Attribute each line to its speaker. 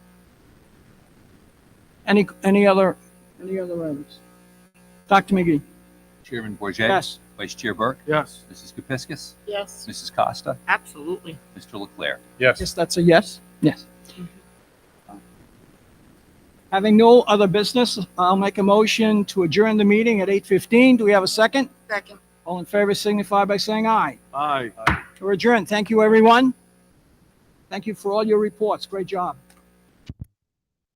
Speaker 1: Any, any other, any other items? Dr. McGee?
Speaker 2: Chairman Bourget,
Speaker 1: Yes.
Speaker 2: Vice Chair Burke,
Speaker 3: Yes.
Speaker 2: Mrs. Kepiscus,
Speaker 4: Yes,
Speaker 2: Mrs. Costa,
Speaker 4: absolutely.
Speaker 2: Mr. Leclerc.
Speaker 3: Yes.
Speaker 1: Yes, that's a yes? Yes. Having no other business, I'll make a motion to adjourn the meeting at 8:15. Do we have a second?
Speaker 4: Second.
Speaker 1: All in favor signify by saying aye.
Speaker 3: Aye.
Speaker 1: We're adjourned. Thank you, everyone. Thank you for all your reports. Great job.